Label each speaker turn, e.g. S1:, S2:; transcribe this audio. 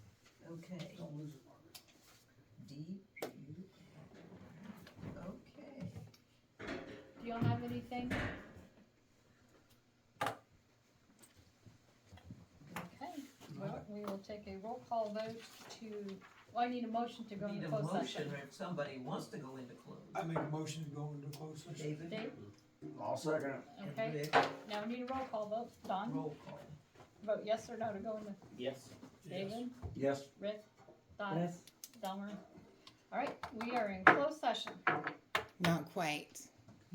S1: Okay,
S2: Don't lose it, Margaret.
S1: D, U, R. Okay,
S3: Do y'all have anything? Okay, well, we will take a roll call vote to, well, I need a motion to go
S1: need
S3: into
S1: a
S3: closed
S1: motion
S3: session.
S1: if somebody wants to go into
S2: I
S1: close.
S2: make a motion to go into closed session.
S1: David?
S3: Dave,
S4: I'll second it.
S1: and
S3: okay,
S1: Rick,
S3: now we need a roll call vote. Don,
S1: Roll call.
S3: vote yes or no to go into,
S5: Yes.
S2: Yes.
S3: David,
S4: Yes.
S3: Rick, Don, Delmer. All right, we are in closed session.
S6: Not quite.